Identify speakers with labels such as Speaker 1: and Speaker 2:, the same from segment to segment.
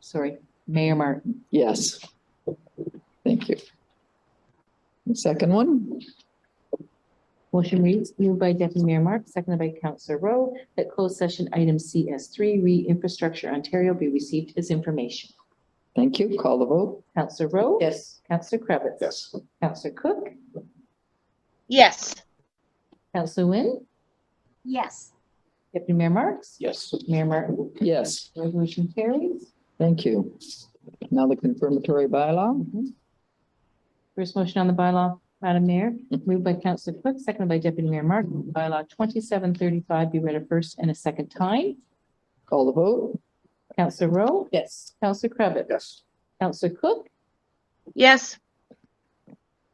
Speaker 1: sorry, Mayor Martin.
Speaker 2: Yes. Thank you. The Second one,
Speaker 1: Motion reads, moved by Deputy Mayor Mark, seconded by Councillor Rowe, that closed session item CS three, re-infrastructure Ontario be received as information.
Speaker 2: thank you. Call the vote.
Speaker 1: Councillor Rowe?
Speaker 2: Yes.
Speaker 1: Councillor Krebitz?
Speaker 3: Yes.
Speaker 1: Councillor Cook?
Speaker 4: Yes.
Speaker 1: Councillor Wynn?
Speaker 4: Yes.
Speaker 1: Deputy Mayor Marks?
Speaker 3: Yes.
Speaker 1: Mayor Martin?
Speaker 2: Yes,
Speaker 1: Resolution carries.
Speaker 2: thank you. Now the confirmatory bylaw.
Speaker 1: Mm-hmm. First motion on the bylaw, Madam Mayor, moved by Councillor Cook, seconded by Deputy Mayor Martin, bylaw twenty-seven thirty-five be read a first and a second time.
Speaker 2: Call the vote.
Speaker 1: Councillor Rowe?
Speaker 2: Yes.
Speaker 1: Councillor Krebitz?
Speaker 3: Yes.
Speaker 1: Councillor Cook?
Speaker 4: Yes.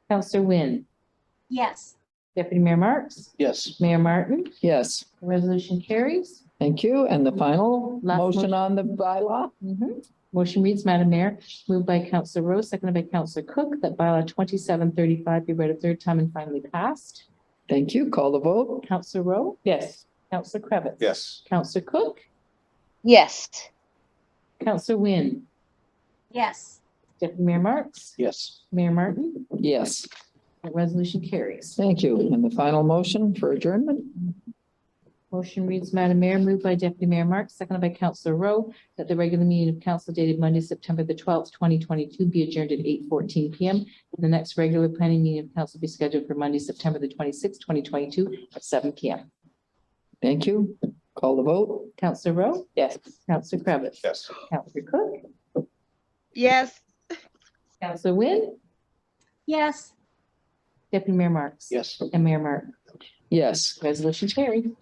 Speaker 1: Councillor Wynn?
Speaker 4: Yes.
Speaker 1: Deputy Mayor Marks?
Speaker 3: Yes.
Speaker 1: Mayor Martin?
Speaker 2: Yes,
Speaker 1: The Resolution carries.
Speaker 2: thank you. And the final
Speaker 1: Last
Speaker 2: motion
Speaker 1: motion.
Speaker 2: on the bylaw?
Speaker 1: Motion reads, Madam Mayor, moved by Councillor Rowe, seconded by Councillor Cook, that bylaw twenty-seven thirty-five be read a third time and finally passed.
Speaker 2: Thank you. Call the vote.
Speaker 1: Councillor Rowe? Yes. Councillor Krebitz?
Speaker 3: Yes.
Speaker 1: Councillor Cook?
Speaker 4: Yes.
Speaker 1: Councillor Wynn?
Speaker 4: Yes.
Speaker 1: Deputy Mayor Marks?
Speaker 3: Yes.
Speaker 1: Mayor Martin?
Speaker 2: Yes,
Speaker 1: The resolution carries.
Speaker 2: thank you. And the final motion for adjournment?
Speaker 1: Motion reads, Madam Mayor, moved by Deputy Mayor Marks, seconded by Councillor Rowe, that the regular meeting of council dated Monday, September the twelfth, twenty twenty-two be adjourned at eight fourteen P M. And the next regular planning meeting of council be scheduled for Monday, September the twenty-sixth, twenty twenty-two at seven P M.
Speaker 2: Thank you. Call the vote.
Speaker 1: Councillor Rowe? Yes. Councillor Kravitz,
Speaker 3: Yes.
Speaker 1: Councillor Cook?
Speaker 4: Yes.
Speaker 1: Councillor Wynn?
Speaker 4: Yes.
Speaker 1: Deputy Mayor Marks?
Speaker 3: Yes.
Speaker 1: And Mayor Martin?
Speaker 2: Yes.
Speaker 1: Resolution carried.